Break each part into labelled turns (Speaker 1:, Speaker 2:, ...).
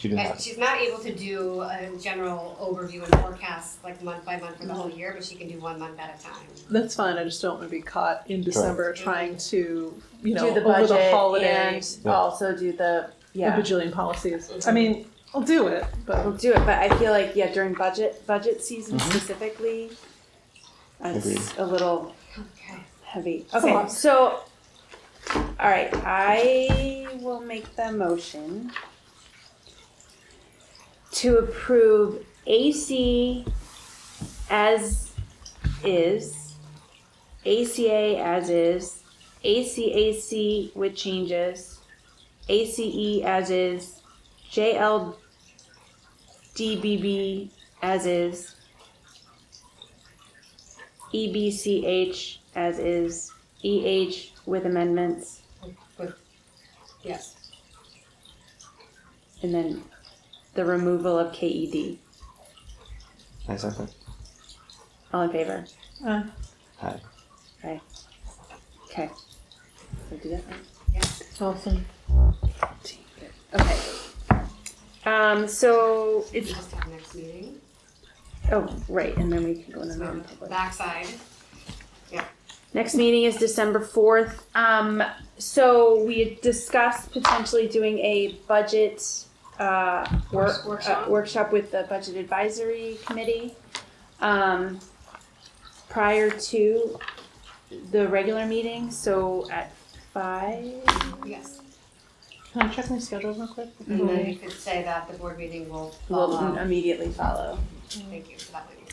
Speaker 1: She didn't
Speaker 2: And
Speaker 1: have.
Speaker 2: she's not able to do a general overview and forecast like month by month for the whole year, but she can do one month at a time.
Speaker 3: That's fine. I just don't want to be caught in December trying to, you know,
Speaker 4: do the
Speaker 3: over
Speaker 4: budget
Speaker 3: the holiday,
Speaker 4: and
Speaker 1: Yeah.
Speaker 4: also do the yeah.
Speaker 3: a bajillion policies. I mean, I'll do it,
Speaker 4: We'll
Speaker 3: but
Speaker 4: do it, but I feel like yeah, during budget budget season
Speaker 1: Mhm.
Speaker 4: specifically,
Speaker 1: Agreed.
Speaker 4: it's a little
Speaker 2: Okay.
Speaker 4: heavy. Okay, so all right, I will make the motion to approve AC as is, ACA as is, ACAC with changes, ACE as is, JLDBB as is, E EBCH as is, EH with amendments,
Speaker 2: Yes.
Speaker 4: and then the removal of E KED.
Speaker 1: I second.
Speaker 4: All in favor?
Speaker 3: uh,
Speaker 1: Hi.
Speaker 4: Okay. Did I do that right?
Speaker 3: awesome.
Speaker 4: Okay. Um, so
Speaker 2: We
Speaker 4: it's,
Speaker 2: just have next meeting.
Speaker 4: oh, right, and then we can go in the
Speaker 2: So on the
Speaker 4: non-public.
Speaker 2: backside.
Speaker 4: Next meeting is December fourth. Um, so we had discussed potentially doing a budget uh, work,
Speaker 2: Workshop.
Speaker 4: uh, workshop with the budget advisory committee um, prior to the regular meeting. So at five.
Speaker 2: Yes.
Speaker 3: Can I check my schedule real quick?
Speaker 2: And then you could say that the board meeting will
Speaker 4: Mm-hmm. Will
Speaker 2: follow.
Speaker 4: immediately follow.
Speaker 2: Thank you for that. Whitney.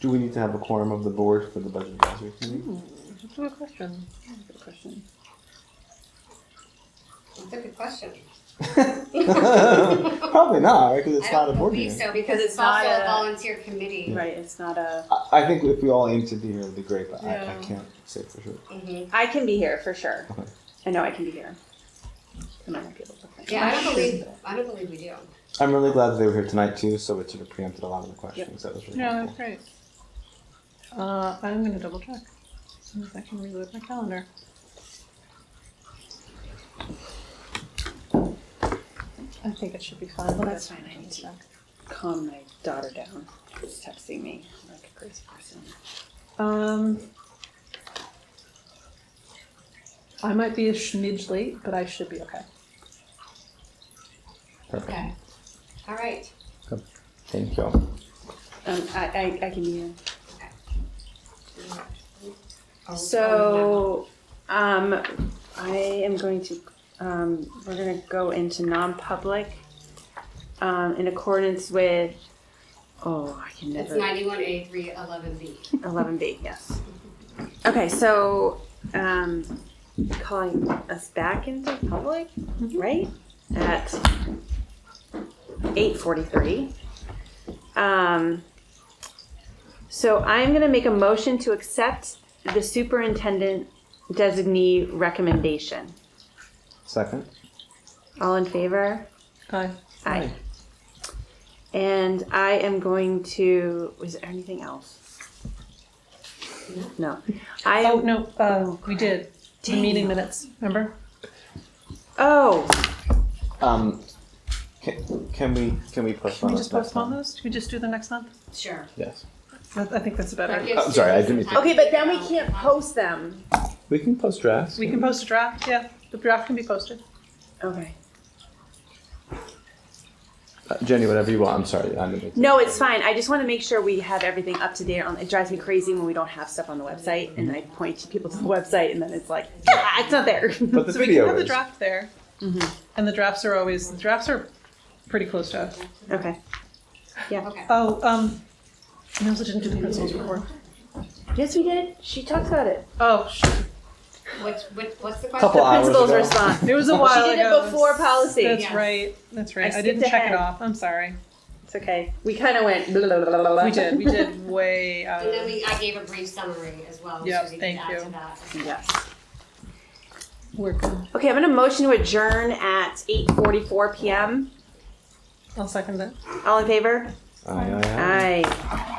Speaker 1: Do we need to have a quorum of the board for the budget advisory committee?
Speaker 3: That's a good question. Good question.
Speaker 2: That's a good question.
Speaker 3: Mm.
Speaker 1: Probably not, right? Because it's
Speaker 2: I
Speaker 1: not a
Speaker 2: don't
Speaker 1: board
Speaker 2: believe
Speaker 1: meeting.
Speaker 2: so
Speaker 4: Because
Speaker 2: because
Speaker 4: it's
Speaker 2: it's also
Speaker 4: not
Speaker 2: a
Speaker 4: a-
Speaker 2: volunteer committee.
Speaker 4: Right. It's not a.
Speaker 1: I, I think if we all aim to be here, it'd be great, but I, I
Speaker 3: Yeah.
Speaker 1: can't say for sure.
Speaker 2: Mhm.
Speaker 4: I can be here for sure.
Speaker 1: Okay.
Speaker 4: I know I can be here. I might not be able to. find-
Speaker 2: Yeah, I don't believe, I don't believe we do.
Speaker 1: I'm really glad that they were here tonight too, so it sort of preempted a lot of the questions. That was really
Speaker 3: Yeah, that's
Speaker 1: helpful.
Speaker 3: great. Uh, I'm gonna double check as soon as I can reload my calendar. I think it should be fine.
Speaker 4: Well, that's fine. I need to calm my daughter down. She's texting me like a crazy person.
Speaker 3: Um, I might be a smidge late, but I should be okay.
Speaker 1: Perfect.
Speaker 2: Okay. All right.
Speaker 1: Thank you.
Speaker 4: Um, I, I, I can hear.
Speaker 2: Oh, oh,
Speaker 4: So, um, I am going to, um, we're gonna go into non-public, um, in accordance with, oh, I can
Speaker 2: no. It's
Speaker 4: never.
Speaker 2: ninety-one A three eleven B.
Speaker 4: 11B, yes. Okay, so um, calling us back into public, right? At 8:43. Um, So I'm going to make a motion to accept the superintendent designee recommendation.
Speaker 1: Second.
Speaker 4: All in favor?
Speaker 3: Aye.
Speaker 4: Aye. And I am going to, was there anything else? No. I
Speaker 3: Oh
Speaker 4: am
Speaker 3: no, uh, we did the
Speaker 4: Dang.
Speaker 3: meeting minutes. Remember?
Speaker 4: Oh,
Speaker 1: Um, can, can we can we
Speaker 3: Can
Speaker 1: postpone?
Speaker 3: we
Speaker 1: this
Speaker 3: just
Speaker 1: next
Speaker 3: postpone
Speaker 1: time?
Speaker 3: those? Can we just do the next month?
Speaker 2: Sure.
Speaker 1: Yes,
Speaker 3: That- I think that's better.
Speaker 2: That gives
Speaker 1: I'm sorry, I
Speaker 2: Susan
Speaker 1: didn't
Speaker 2: some time
Speaker 4: okay,
Speaker 2: to
Speaker 4: but then we
Speaker 2: figure out
Speaker 4: can't
Speaker 2: how-
Speaker 4: post them.
Speaker 1: we can post drafts.
Speaker 3: We can post a draft. Yeah, the draft can be posted.
Speaker 4: Okay.
Speaker 1: Uh, Jenny, whatever you want. I'm sorry, I'm the
Speaker 4: No, it's fine. I just want to make sure we have everything up to date. On it drives me crazy when we don't have stuff on the website, and I point to people to the website, and then it's like, ah, it's not there.
Speaker 1: But the
Speaker 3: so we can
Speaker 1: video
Speaker 3: have the
Speaker 1: is.
Speaker 3: draft there, and the drafts are always the drafts are pretty close to us.
Speaker 4: okay.
Speaker 2: Okay.
Speaker 3: Oh, um, I also didn't do the principal's report.
Speaker 4: Yes, we did. She talked about it.
Speaker 3: Oh, sh-
Speaker 2: What's, what- what's the question?
Speaker 1: Couple hours
Speaker 4: Principal's
Speaker 1: ago.
Speaker 4: response.
Speaker 3: it was a while
Speaker 4: did it
Speaker 3: ago.
Speaker 4: before policy.
Speaker 3: That's
Speaker 2: Yes.
Speaker 3: right. That's right. I,
Speaker 4: skipped
Speaker 3: didn't check
Speaker 4: ahead.
Speaker 3: it off. I'm sorry.
Speaker 4: It's okay. We kind of went. Blah, blah, blah, blah, blah.
Speaker 3: We did. We did way out.
Speaker 2: And then
Speaker 3: Of,
Speaker 2: we, I gave a brief summary as well.
Speaker 3: Yeah,
Speaker 2: Susan could
Speaker 3: thank
Speaker 2: add to that.
Speaker 3: you.
Speaker 4: yes.
Speaker 3: we're good.
Speaker 4: Okay, I'm gonna motion to adjourn at 8:44 p.m.
Speaker 3: I'll second that.
Speaker 4: All in favor?
Speaker 1: Aye, aye, aye.
Speaker 4: Aye.